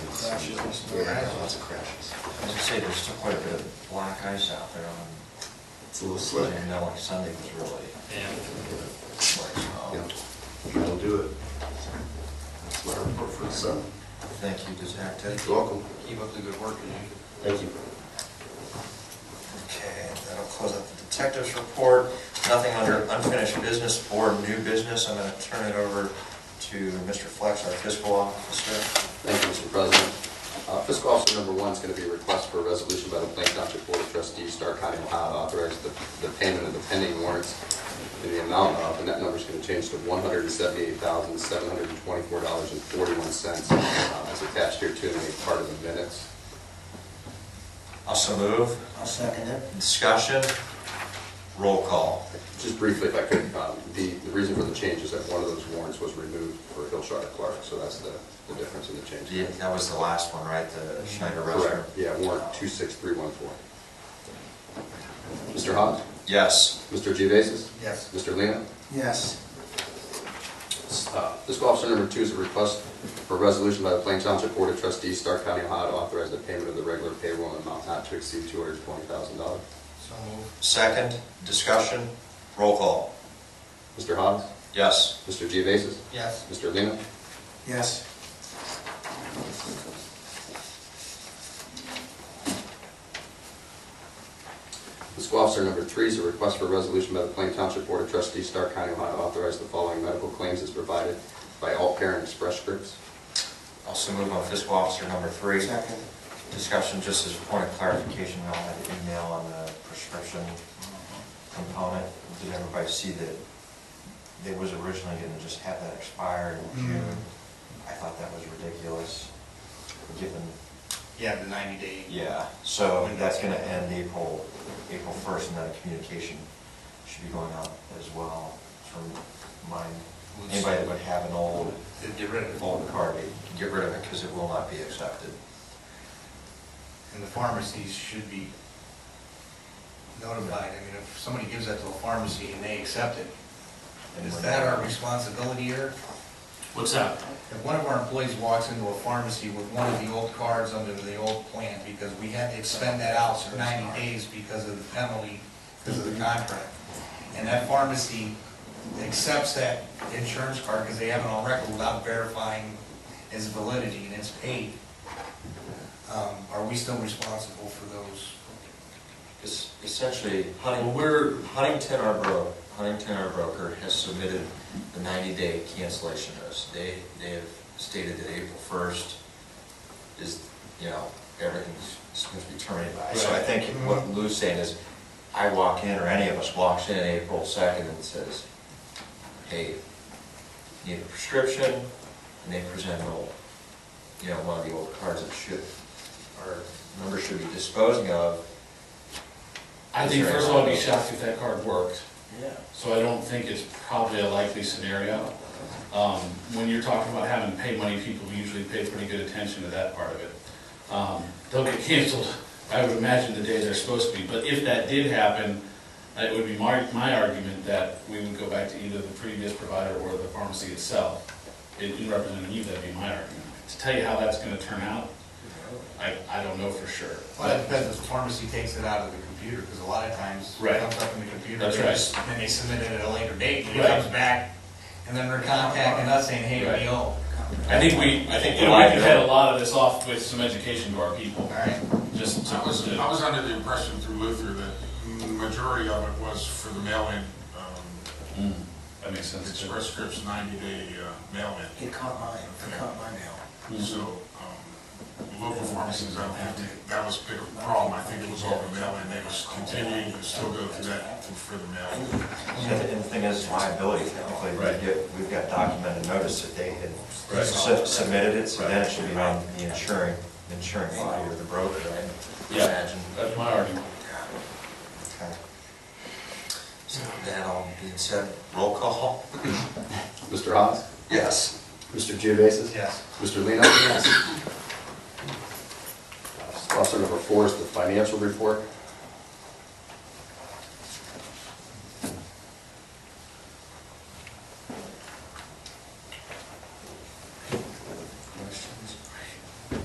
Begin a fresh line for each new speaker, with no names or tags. crashes and stuff.
Yeah, lots of crashes.
As I say, there's still quite a bit of black ice out there on,
It's a little slick.
and now like Sunday was really, like,
Yeah,
um,
that'll do it. That's my report for the summer.
thank you, Detective.
You're welcome.
Keep up the good work, and you.
Thank you.
Okay, that'll close out the detective's report. Nothing under unfinished business or new business. I'm gonna turn it over to Mr. Flex, our fiscal officer.
Thank you, Mr. President. Uh, Fiscal officer number one is going to be a request for a resolution by the Plain Township Board of Trustees, Stark County, Ohio, to authorize the the payment of the pending warrants in the amount of, and that number's going to change to $178,724.41. Uh, It's attached here too, and made part of the minutes.
Also move.
I'll second it.
Discussion. Roll call.
Just briefly, if I could, um, the the reason for the change is that one of those warrants was removed for Hillshire Clark, so that's the the difference in the change.
Yeah, That was the last one, right? The Schneider restroom?
Correct. Yeah, warrant 26314. Mr. Hawes?
Yes.
Mr. Gevasis?
Yes.
Mr. Lino?
Yes.
Uh, Fiscal officer number two is a request for a resolution by the Plain Township Board of Trustees, Stark County, Ohio, to authorize the payment of the regular payroll in an amount not to exceed $220,000.
So moved.
Second. Discussion. Roll call.
Mr. Hawes?
Yes.
Mr. Gevasis?
Yes.
Mr. Lino?
Yes.
Fiscal officer number three is a request for a resolution by the Plain Township Board of Trustees, Stark County, Ohio, to authorize the following medical claims as provided by All Parent Express Scripts.
Also move on fiscal officer number three.
Second.
Discussion, just as a point of clarification, I'll have an email on the prescription component. Did everybody see that they was originally gonna just have that expire in June? I thought that was ridiculous, given,
Yeah, the ninety day.
yeah, so that's gonna end April, April first, and that communication should be going out as well from mine. Anybody that would have an old,
They'd Get rid of it.
old card, get rid of it, because it will not be accepted.
And the pharmacies should be notified. I mean, if somebody gives that to a pharmacy and they accept it, is that our responsibility here?
What's that?
If one of our employees walks into a pharmacy with one of the old cards under the old plan, because we had to expend that out for ninety days because of the penalty, because of the contract, and that pharmacy accepts that insurance card because they have it on record without verifying its validity and it's paid, um, are we still responsible for those?
It's essentially, Huntington,
Well, we're-
Huntington, our bro, Huntington, our broker, has submitted the ninety-day cancellation notice. They, they have stated that April first is, you know, everything's supposed to be terminated by. So I
Right.
think what Lou's saying is, I walk in, or any of us walks in April second and says, hey, need a prescription, and they present an old, you know, one of the old cards that should, our members should be disposing of,
I think first of all, I'd be shocked if that card worked,
Yeah.
so I don't think it's probably a likely scenario. Um, when you're talking about having to pay money, people usually pay pretty good attention to that part of it. Um, they'll get canceled, I would imagine, the day they're supposed to be, but if that did happen, it would be my, my argument that we would go back to either the previous provider or the pharmacy itself. In in representing you, that'd be my argument. To tell you how that's gonna turn out, I, I don't know for sure.
Well, that depends if the pharmacy takes it out of the computer, because a lot of times it
Right.
comes up in the computer.
That's
and
right.
it's- And they submit it at a later date, and it
Right.
comes back, and then they're contacting us saying, hey,
Right.
we owe.
I think we, I think, you know, we could head a lot of this off with some education to our people,
All right,
just to,
I was, I
to-
was under the impression through Luther that the majority of it was for the mail-in, um,
Mm, that makes sense. too.
Express Scripts ninety-day uh, mail-in.
It caught mine, it caught my mail.
So, um, local pharmacies, I don't think, that was a bigger problem. I think it was all the mail-in. They was continuing to still go through that for the mail-in.
And the thing is liability technically,
Right.
we get, we've got documented notice that they had
Right.
su- submitted it, so then it should be on the insuring, insuring body or the broker, I
Yeah.
imagine.
That's my argument.
Okay. So that all being said, roll call?
Mr. Hawes?
Yes.
Mr. Gevasis?
yes.
Mr. Lino? Uh, Yes. Officer number four is the financial report.